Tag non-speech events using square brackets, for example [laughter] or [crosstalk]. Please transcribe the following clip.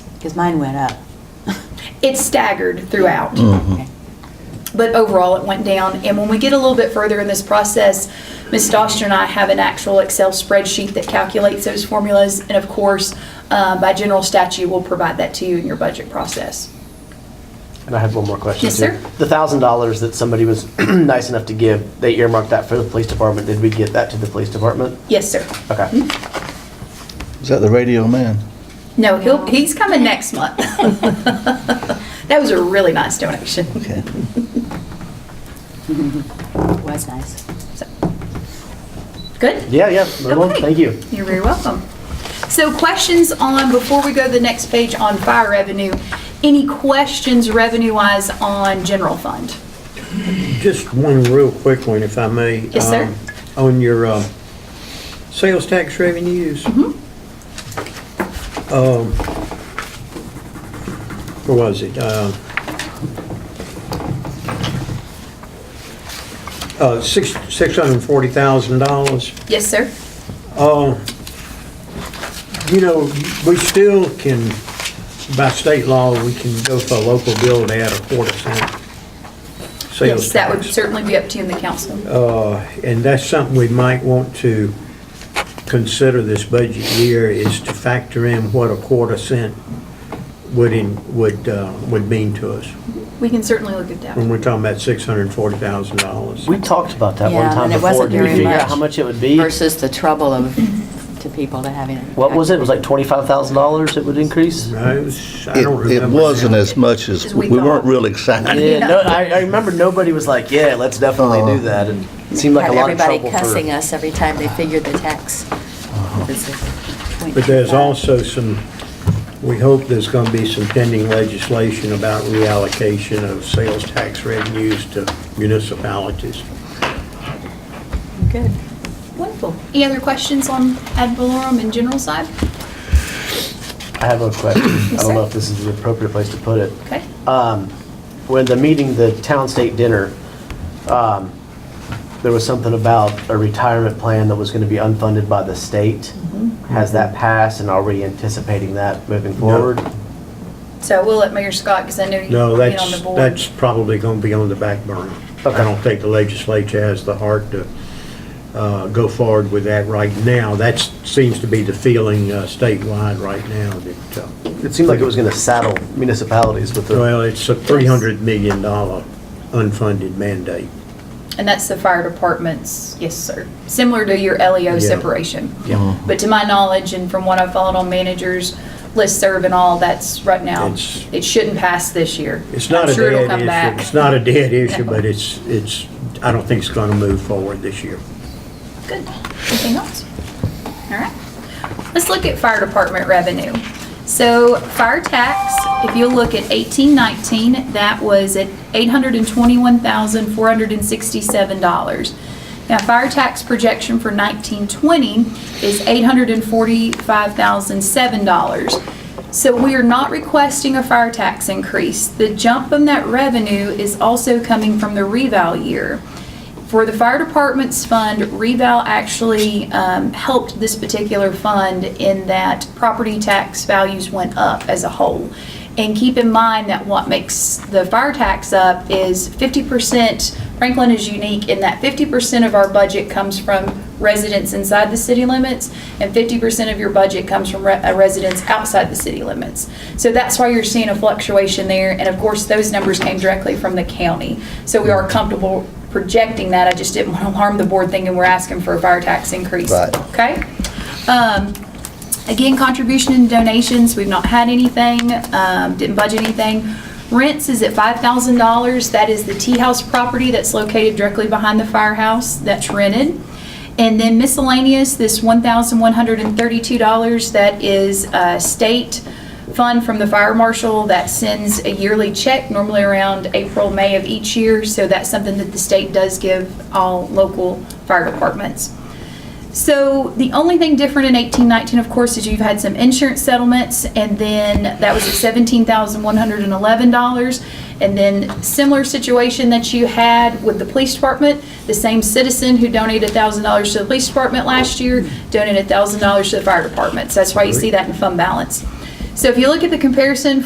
Because mine went up. It's staggered throughout. Mm-hmm. Okay. but overall it went down. And when we get a little bit further in this process, Ms. Doster and I have an actual Excel spreadsheet that calculates those formulas. And of course, uh, by general statute, we'll provide that to you in your budget process. And I have one more question. Yes, too. sir. The thousand dollars that somebody was [clears throat] nice enough to give, they earmarked that for the police department. Did we get that to the police department? Yes, sir. Hmm? Okay. Is that the radio man? No, he'll, he's coming next month. [laughs] That was a really nice donation. Okay. It was nice. So- Good? Yeah, yeah. Move on. Okay. Thank you. You're very welcome. So questions on, before we go to the next page on fire revenue, any questions revenue-wise on general fund? Just one real quick one, if I may. Yes, sir. Um, On your um, sales tax revenues. Mm-hmm. Um, Where was it? Uh, uh, six $640,000. Yes, sir? Uh, You know, we still can, by state law, we can go for a local bill to add a quarter cent. sales Yes, that would tax. certainly be up to you and the council. Uh, And that's something we might want to consider this budget year, is to factor in what a quarter cent would, in- would, uh, would mean to us, We can certainly look at that. when we're talking about $640,000. We talked about that one Yeah, time and it before. wasn't Did we very figure out much how much it would be? Versus the trouble of, to people to having it. What was it? It was like twenty-five thousand dollars it would increase? I was- I It, don't it remember. wasn't as much as, As we we weren't thought. real excited. Yeah, no, I, I remember nobody was like, yeah, let's definitely do that. And it seemed like a Had lot of trouble everybody cussing for. us every time they figured the tax. Uh-huh. But there's also some, we hope there's going to be some pending legislation about reallocation of sales tax revenues to municipalities. Good. Wonderful. Any other questions on ad valorem and general side? I have a question. I Yes, don't know sir. if this is the appropriate place to put it. Okay. Uh, um, when the meeting, the town state dinner, um, there was something about a retirement plan that was going to be unfunded by the state. Has that passed and are we anticipating that moving forward? So we'll let Mayor Scott, because I know you've No, been on the that's, board. that's probably going to be on the back burner. I don't think the legislature has the heart to uh, go forward with that right now. That seems to be the feeling uh, statewide right now that, uh, It seemed like it was going to saddle municipalities with the, well, it's a $300 million unfunded mandate. And that's the fire department's, yes, sir. Similar to your LEO Yeah. separation. Yeah. But to my knowledge and from what I've followed on managers, listserv and all, that's right now, It's- it shouldn't pass this year. It's not a I'm sure it'll dead come issue. back. It's not [laughs] a dead issue, but it's, it's, I don't think it's going to move forward this year. Good. Anything else? All right. Let's look at fire department revenue. So fire tax, if you look at eighteen nineteen, that was at eight hundred and twenty-one thousand, four hundred and sixty-seven dollars. Now, fire tax projection for nineteen twenty is eight hundred and forty-five thousand, seven dollars. So we are not requesting a fire tax increase. The jump in that revenue is also coming from the reval year. For the fire department's fund, Reval actually um, helped this particular fund in that property tax values went up as a whole. And keep in mind that what makes the fire tax up is 50%, Franklin is unique in that 50% of our budget comes from residents inside the city limits, and 50% of your budget comes from re- uh, residents outside the city limits. So that's why you're seeing a fluctuation there, and of course, those numbers came directly from the county. So we are comfortable projecting that, I just didn't want to harm the board thinking we're asking for a fire tax increase. Right. Okay? Um, Again, contribution and donations, we've not had anything, um, didn't budget anything. Rents is at $5,000. That is the tea house property that's located directly behind the firehouse that's rented. And then miscellaneous, this $1,132, that is uh, state fund from the fire marshal that sends a yearly check, normally around April, May of each year. So that's something that the state does give all local fire departments. So the only thing different in eighteen nineteen, of course, is you've had some insurance settlements, and then that was at seventeen thousand one hundred and eleven dollars. And then similar situation that you had with the police department, the same citizen who donated thousand dollars to the police department last year donated thousand dollars to the fire department. So that's why you see that in fund balance. So if you look at the comparison